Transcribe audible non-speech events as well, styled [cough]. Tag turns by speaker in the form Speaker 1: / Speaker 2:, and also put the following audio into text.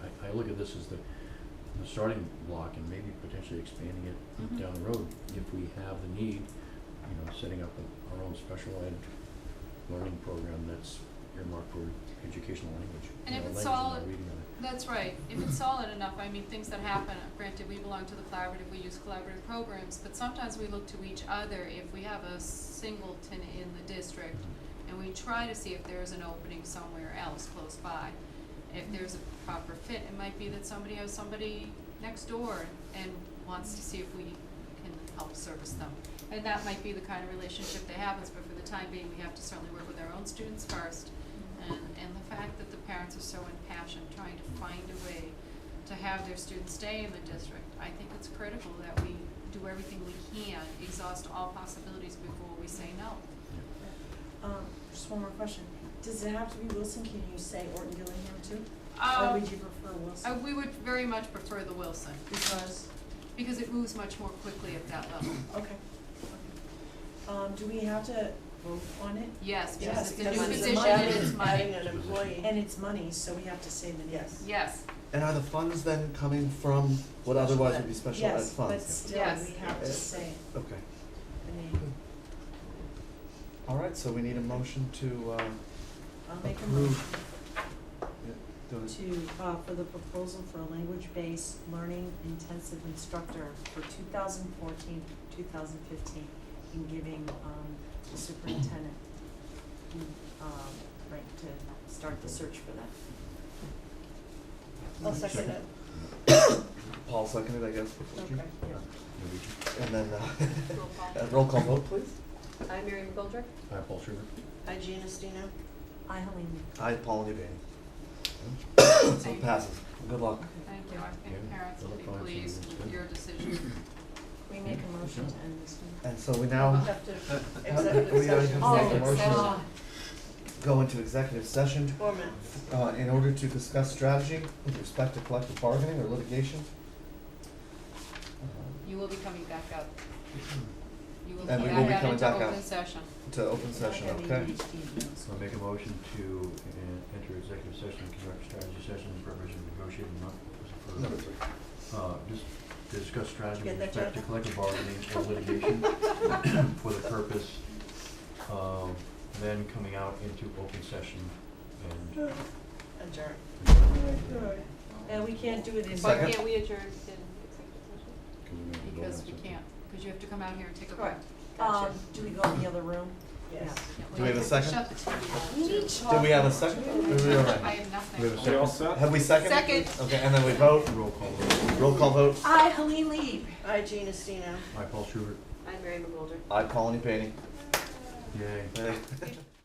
Speaker 1: I look at this as the, the starting block and maybe potentially expanding it
Speaker 2: Mhm.
Speaker 1: down the road if we have the need, you know, setting up a- our own special ed learning program that's earmarked for educational language, you
Speaker 2: And
Speaker 1: know,
Speaker 2: if
Speaker 1: language
Speaker 2: it's
Speaker 1: and our
Speaker 2: solid-
Speaker 1: reading of it.
Speaker 2: That's right, if it's solid enough, I mean, things that happen, granted, we belong to the collaborative, we use collaborative programs, but sometimes we look to each other if we have a singleton in the district, and we try to see if there is an opening somewhere else close by. If there's a proper fit, it might be that somebody has somebody next door and wants to see if we can help service them. And that might be the kind of relationship that happens, but for the time being, we have to certainly work with our own students first. And, and the fact that the parents are so impassioned trying to find a way to have their students stay in the district, I think it's critical that we do everything we can, exhaust all possibilities before we say no.
Speaker 3: Um, just one more question. Does it have to be Wilson? Can you say Orton Gillingham too? Or
Speaker 2: Um,
Speaker 3: would you prefer
Speaker 2: I,
Speaker 3: Wilson?
Speaker 2: we would very much prefer the Wilson,
Speaker 3: Because,
Speaker 2: because it moves much more quickly at that level.
Speaker 3: okay. Um, do we have to vote on it?
Speaker 2: Yes, because
Speaker 3: Yes,
Speaker 2: it's a
Speaker 3: because
Speaker 2: new
Speaker 3: it's
Speaker 2: position
Speaker 3: money.
Speaker 2: and it's money.
Speaker 4: Adding an employee.
Speaker 3: And it's money, so we have to say the yes.
Speaker 2: Yes,
Speaker 5: And are the funds then coming from what otherwise would be special ed
Speaker 3: Yes, but
Speaker 5: funds?
Speaker 3: still,
Speaker 2: Yes.
Speaker 3: we have to say
Speaker 5: Okay,
Speaker 3: the name.
Speaker 5: all right, so we need a motion to, um,
Speaker 3: I'll make a
Speaker 5: Approve.
Speaker 3: motion
Speaker 5: do it.
Speaker 3: to, uh, for the proposal for a language-based learning intensive instructor for 2014-2015 in giving, um, the superintendent, um, right to start the search for that.
Speaker 4: I'll second it.
Speaker 5: Paul seconded, I guess, before you.
Speaker 4: Okay,
Speaker 1: Maybe we should-
Speaker 5: And then, uh, [laughs]
Speaker 2: roll call.
Speaker 5: uh, roll call vote, please.
Speaker 6: I'm Mary McGoldrick.
Speaker 1: Hi, Paul Schubert.
Speaker 4: Hi, Gina Stino.
Speaker 3: I, Helene.
Speaker 5: Aye, Paul Nivane. So it passes, good luck.
Speaker 2: Thank you, I think
Speaker 1: Yeah,
Speaker 2: parents will be
Speaker 1: electronics and
Speaker 2: pleased
Speaker 1: it's
Speaker 2: with
Speaker 1: good.
Speaker 2: your decision.
Speaker 3: We make a motion to end this meeting.
Speaker 5: And so we now
Speaker 4: Have to
Speaker 5: we
Speaker 4: executive
Speaker 5: already
Speaker 4: session.
Speaker 5: have
Speaker 3: Oh,
Speaker 5: Make a motion.
Speaker 3: uh,
Speaker 5: go into executive session,
Speaker 4: Four minutes.
Speaker 5: uh, in order to discuss strategy with respect to collective bargaining or litigation. Uh,
Speaker 2: You will be coming back up. You will be
Speaker 5: And we will be
Speaker 2: back out
Speaker 5: coming
Speaker 2: into
Speaker 5: back up.
Speaker 2: open session.
Speaker 5: To open session, okay?
Speaker 1: I'll make a motion to uh, enter executive session, and conduct strategy session in preparation of negotiating, not, for,
Speaker 5: Number three.
Speaker 1: uh, just to discuss strategy with
Speaker 4: Get that
Speaker 1: respect to
Speaker 4: joke?
Speaker 1: collective bargaining or litigation
Speaker 4: [laughs]
Speaker 1: for the purpose of then coming out into open session and.
Speaker 4: Adjourn.
Speaker 3: And we can't do it in.
Speaker 6: Why
Speaker 5: Second.
Speaker 6: can't we adjourn in executive session?
Speaker 2: Because we can't, because you have to come out here and take a break.
Speaker 3: Correct.
Speaker 6: Gotcha.
Speaker 3: Um, do we go in the other room?
Speaker 4: Yes.
Speaker 2: Yeah,
Speaker 5: Do we have a
Speaker 2: have to
Speaker 5: second?
Speaker 2: Shut the TV off.
Speaker 5: Do we have a second? Are we all right?
Speaker 2: I have nothing.
Speaker 1: We have a
Speaker 7: We all set?
Speaker 5: Have we seconded?
Speaker 2: Second.
Speaker 5: Okay, and then we vote,
Speaker 1: Roll call vote.
Speaker 5: roll call vote.
Speaker 3: I, Helene Lee.
Speaker 4: Hi, Gina Stino.
Speaker 1: Hi, Paul Schubert.
Speaker 6: I'm Mary McGoldrick.
Speaker 5: I, Colony Payne.
Speaker 1: Yay.
Speaker 5: Hey.